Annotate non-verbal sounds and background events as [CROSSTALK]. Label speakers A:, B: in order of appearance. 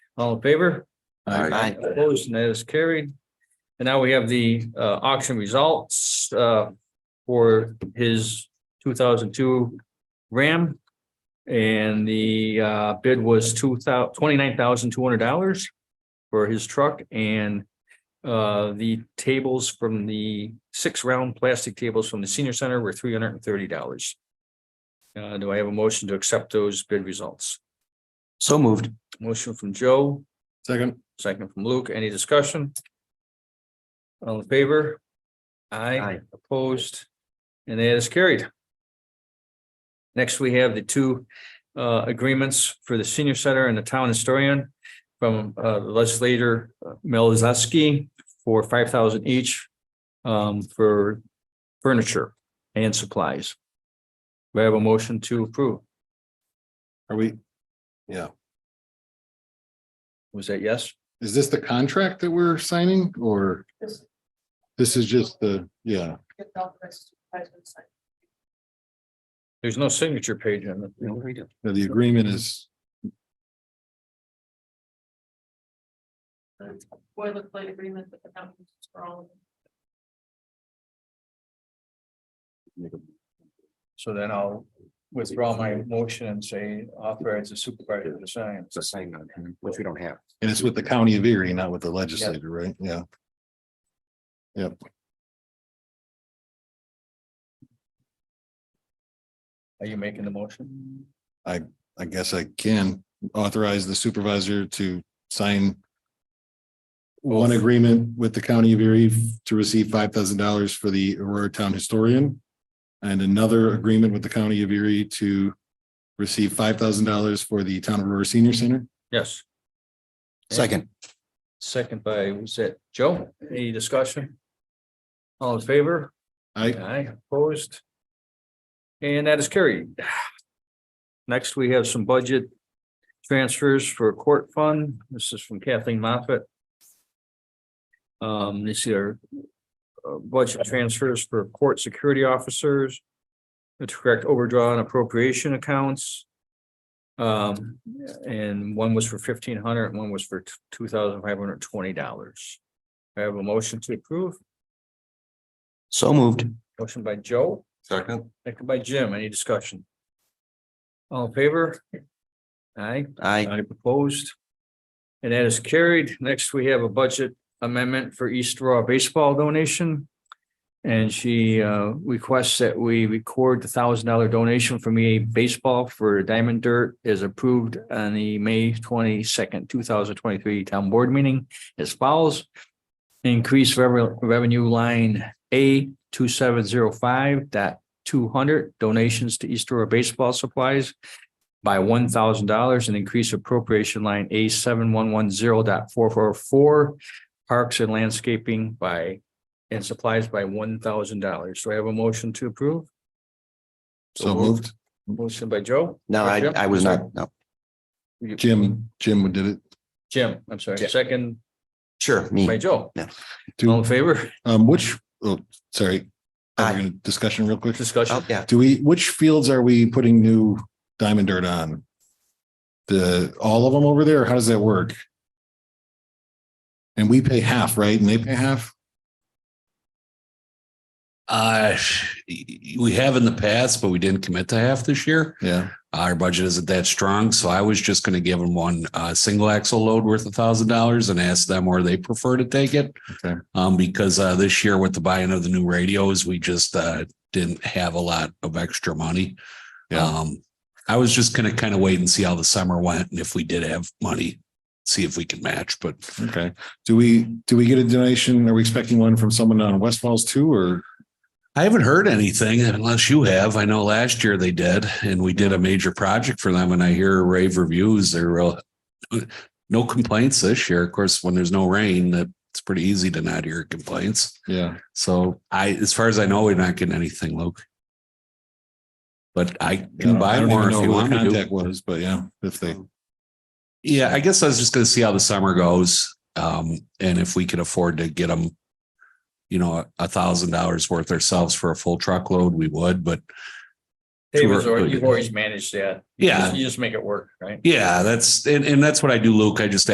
A: All in favor?
B: Aye.
C: Aye.
A: Opposed, and that is carried. And now we have the uh, auction results uh, for his two thousand two Ram. And the uh, bid was two thousand, twenty-nine thousand two hundred dollars for his truck and uh, the tables from the six-round plastic tables from the senior center were three hundred and thirty dollars. Uh, do I have a motion to accept those bid results?
C: So moved.
A: Motion from Joe,
B: Second.
A: Second from Luke, any discussion? All in favor?
C: Aye.
A: Aye, opposed, and that is carried. Next, we have the two uh agreements for the senior center and the town historian from uh legislator Melizaski for five thousand each um for furniture and supplies. We have a motion to approve.
B: Are we,
A: Was that yes?
B: is this the contract that we're signing or?
D: This-
B: This is just the, yeah,
D: get all the rest of the items.
A: There's no signature page on it.
B: the agreement is,
D: The Boilerplate agreement with the companies for all of them.
A: So
C: Mm-hmm.
A: then I'll withdraw my motion and say authorize the supervisor to sign.
C: It's a sign on there, which we don't have.
B: and it's with the county of Erie, not with the legislator, right? Yeah.
A: Are you making the motion?
B: I guess I can authorize the supervisor to sign. One agreement with the county of Erie to receive five thousand dollars for the Aurora Town Historian. And another agreement with the county of Erie to receive five thousand dollars for the Town of Aurora Senior Center.
A: Yes,
C: Second.
A: second by, was it Joe? Any discussion? All in favor?
B: I,
A: Aye, opposed. And that is carried. Next, we have some budget transfers for court fund. This is from Kathleen Moffett. Um, these are uh, budget transfers for court security officers. To correct overdraw and appropriation accounts. Um, and one was for fifteen hundred and one was for two thousand five hundred twenty dollars. I have a motion to approve.
C: So moved.
A: Motion by Joe.
B: Second.
A: Second by Jim, any discussion? All in favor? Aye,
C: Aye.
A: I opposed. And that is carried. Next, we have a budget amendment for East Raw Baseball donation. And she uh, requests that we record the thousand dollar donation from EA Baseball for Diamond Dirt is approved on the May twenty second, two thousand twenty three town board meeting as follows. Increase rev- revenue line A two seven zero five dot two hundred donations to East Aurora baseball supplies by one thousand dollars and increase appropriation line A seven one one zero dot four four four parks and landscaping by and supplies by one thousand dollars. Do I have a motion to approve?
B: So moved.
A: Motion by Joe?
C: No, I,
A: Jim?
C: I was not, no.
B: Jim, Jim did it.
A: Jim, I'm sorry,
C: Jim.
A: second
C: Sure,
A: by
C: me.
A: Joe. All
E: Oh.
A: in
B: Do,
A: favor? [LAUGHS]
B: um, which, oh, sorry.
C: Aye.
B: Are we gonna discussion real quick?
A: Discussion.
C: Oh, yeah.
B: Do we, which fields are we putting new diamond dirt on? The, all of them over there? or How does that work? And we pay half, right? And they pay half?
E: Uh, we have in the past, but we didn't commit to half this year.
B: Yeah.
E: Our budget isn't that strong, so I was just going to give them one uh, single axle load worth a thousand dollars and ask them where they prefer to take it.
B: Okay.
E: Um, because uh, this year with the buying of the new radios, we just uh, didn't have a lot of extra money.
B: Yeah.
E: Um, I was just going to kind of wait and see how the summer went and if we did have money, see if we could match. But
B: Okay. Do we, do we get a donation? Are we expecting one from someone on West Falls too, or?
E: I haven't heard anything unless you have. I know last year they did, and we did a major project for them, and I hear rave reviews. They're real, no complaints this year. Of course, when there's no rain, that it's pretty easy to not hear complaints.
B: Yeah.
E: So I, as far as I know, we're not getting anything, Luke. But I can
B: I
E: buy
B: don't even
E: more if
B: know
E: you
B: who the
E: want me to.
B: Contact was, but yeah, if they,
E: Yeah, I guess I was just going to see how the summer goes, um, and if we can afford to get them, you know, a thousand dollars worth ourselves for a full truckload, we would. But
A: Dave,
E: Sure.
A: you've always managed that. You
E: Yeah.
A: just- You just make it work, right?
E: Yeah, that's and, and that's what I do, Luke. I just